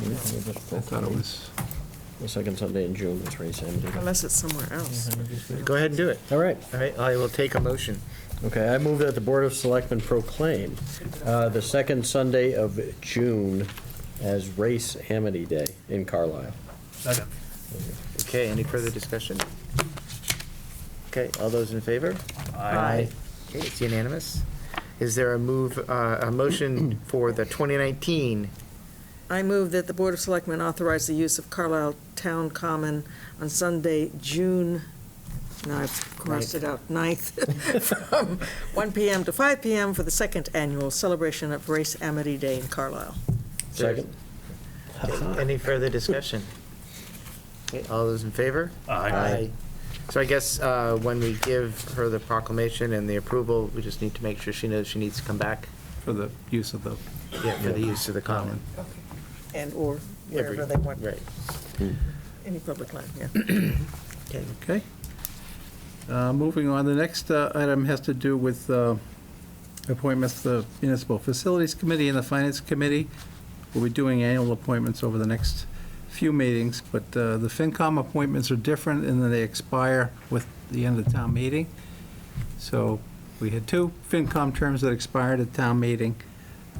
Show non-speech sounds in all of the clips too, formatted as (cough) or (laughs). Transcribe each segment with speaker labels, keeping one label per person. Speaker 1: We'll just
Speaker 2: I
Speaker 1: go
Speaker 2: thought it was,
Speaker 1: The second Sunday in June, that's race end.
Speaker 3: Unless it's somewhere else.
Speaker 4: Go ahead and do it.
Speaker 1: All right,
Speaker 4: All right, I will take a motion.
Speaker 1: okay, I move that the Board of Selectmen proclaim uh, the second Sunday of June as Race Amity Day in Carlisle.
Speaker 4: Okay, any further discussion? Okay, all those in favor?
Speaker 3: Aye.
Speaker 4: Okay, it's unanimous. Is there a move, uh, a (clears throat) motion for the 2019?
Speaker 3: I move that the Board of Selectmen authorize the use of Carlisle Town Common on Sunday, June, now I've crossed it out, 9th, (laughs) from 1 PM to 5 PM for the second annual celebration of Race Amity Day in Carlisle.
Speaker 1: Second?
Speaker 4: Any further discussion? Okay, all those in favor? Aye. So I guess uh, when we give her the proclamation and the approval, we just need to make sure she knows she needs to come back
Speaker 2: for the use of the
Speaker 4: yeah, for the use of the common.
Speaker 3: And/or wherever they want,
Speaker 4: Right.
Speaker 3: any public land, yeah.
Speaker 2: Okay. Uh, Moving on, the next uh, item has to do with uh, appointments to the Municipal Facilities Committee and the Finance Committee. We'll be doing annual appointments over the next few meetings, but uh, the FinCom appointments are different in that they expire with the end of town meeting. So we had two FinCom terms that expired at town meeting.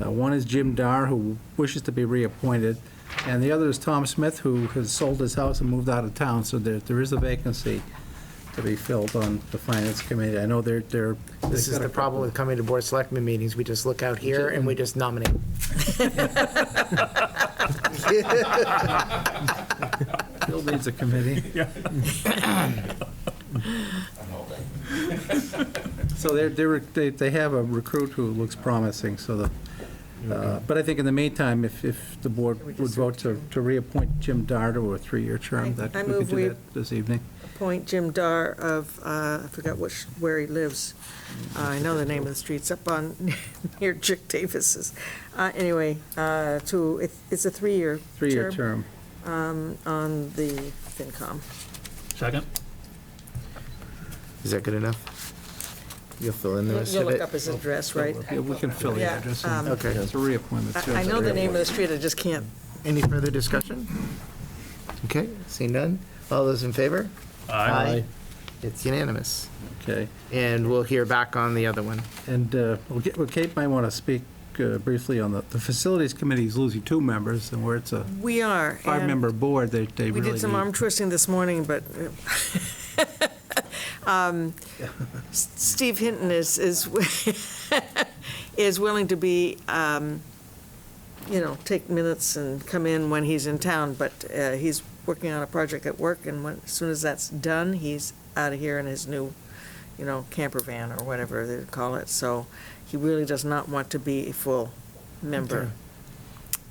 Speaker 2: Uh, One is Jim Dar, who wishes to be reappointed, and the other is Tom Smith, who has sold his house and moved out of town, so there, there is a vacancy to be filled on the Finance Committee. I know they're, they're.
Speaker 4: This is the problem with coming to Board of Selectmen meetings. We just look out here and we just nominate.
Speaker 2: Bill needs a (laughs) committee. So they're, they're, they, they have a recruit who looks promising, so the, uh, but I think in the meantime, if, if the board would vote to, to reappoint Jim Dart to a three-year term, that
Speaker 3: I- I
Speaker 2: we could
Speaker 3: move we-
Speaker 2: do that this evening.
Speaker 3: Appoint Jim Dar of, uh, I forgot which, where he lives. Uh, I know the name of the streets up on, (laughs) near Chick Davis's. Uh, Anyway, uh, to, it- it's a three-year
Speaker 2: Three-year term.
Speaker 3: um, on the FinCom.
Speaker 5: Second?
Speaker 4: Is that good enough? You'll fill in the
Speaker 3: You'll
Speaker 4: rest
Speaker 3: you'll
Speaker 4: of
Speaker 3: look
Speaker 4: it.
Speaker 3: up his address, right?
Speaker 2: Yeah, we can fill the
Speaker 3: Yeah,
Speaker 2: address.
Speaker 3: um,
Speaker 2: in.
Speaker 4: Okay.
Speaker 2: It's a reappointment. too.
Speaker 3: I I know the name of the street, I just can't.
Speaker 4: Any further discussion? Okay, seeing none. All those in favor? It's unanimous.
Speaker 2: Okay.
Speaker 4: And we'll hear back on the other one.
Speaker 2: And uh, well, Ga- well, Kate might want to speak uh, briefly on the, the Facilities Committee is losing two members, and where it's a
Speaker 3: We are. and-
Speaker 2: five-member board, they, they
Speaker 3: We
Speaker 2: really
Speaker 3: did some arm
Speaker 2: need.
Speaker 3: twisting this morning, but (laughs) um, S- Steve Hinton is, is, (laughs) is willing to be, um, you know, take minutes and come in when he's in town, but uh, he's working on a project at work, and when, as soon as that's done, he's out of here in his new, you know, camper van or whatever they call it, so he really does not want to be a full member.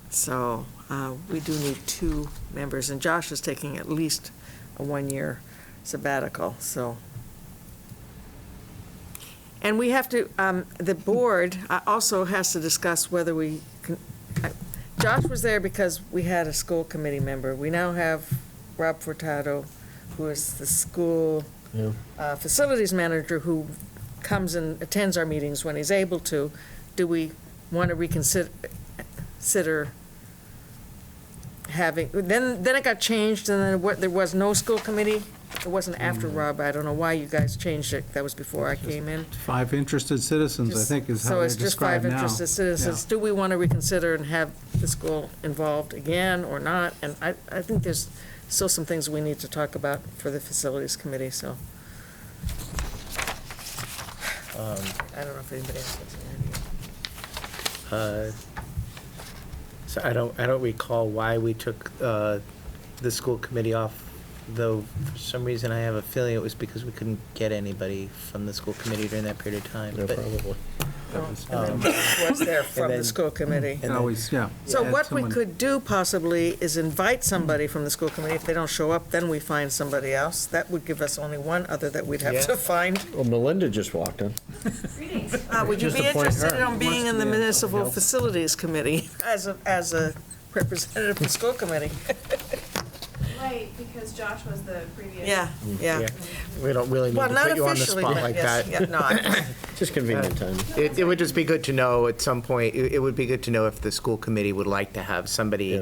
Speaker 3: So uh, we do need two members, and Josh is taking at least a one-year sabbatical, so. And we have to, um, the board uh, also has to discuss whether we, can- I- Josh was there because we had a school committee member. We now have Rob Furtado, who is the school
Speaker 1: Yeah.
Speaker 3: uh, facilities manager, who comes and attends our meetings when he's able to. Do we want to reconsider, consider having, then, then it got changed, and then what, there was no school committee? It wasn't after
Speaker 2: Mm.
Speaker 3: Rob, I don't know why you guys changed it, that was before I came in.
Speaker 2: Five interested citizens, I think, is how
Speaker 3: So
Speaker 2: they're
Speaker 3: it's just
Speaker 2: described
Speaker 3: five
Speaker 2: now.
Speaker 3: interested citizens. Do we want to reconsider and have the school involved again or not? And I, I think there's still some things we need to talk about for the facilities committee, so. I don't know if anybody else has any idea.
Speaker 4: Uh, So I don't, I don't recall why we took uh, the school committee off, though for some reason I have a feeling it was because we couldn't get anybody from the school committee during that period of time.
Speaker 1: Yeah,
Speaker 4: But-
Speaker 1: probably.
Speaker 3: And then Josh was there from the
Speaker 4: then-
Speaker 3: school committee.
Speaker 2: It's Always, yeah.
Speaker 3: So
Speaker 2: add
Speaker 3: what we
Speaker 2: someone.
Speaker 3: could do possibly is invite somebody from the school committee. If they don't show up, then we find somebody else. That would give us only one other that we'd have
Speaker 4: Yeah.
Speaker 3: to find.
Speaker 1: Well, Melinda just walked in.
Speaker 3: Uh, Would you
Speaker 2: Just
Speaker 3: be
Speaker 2: appoint
Speaker 3: interested
Speaker 2: her.
Speaker 3: in being in the
Speaker 2: Yeah.
Speaker 3: municipal facilities committee as a, as a representative of the school committee?
Speaker 6: Right, because Josh was the previous.
Speaker 3: Yeah, yeah.
Speaker 4: Yeah, We don't really need
Speaker 3: Well,
Speaker 4: to
Speaker 3: not
Speaker 4: put you on the
Speaker 3: officially,
Speaker 4: spot
Speaker 3: but
Speaker 4: like
Speaker 3: yes,
Speaker 4: that.
Speaker 3: yeah, no, I-
Speaker 1: Just convenient time.
Speaker 4: It, it would just be good to know at some point, it, it would be good to know if the school committee would like to have
Speaker 1: Yeah.
Speaker 4: somebody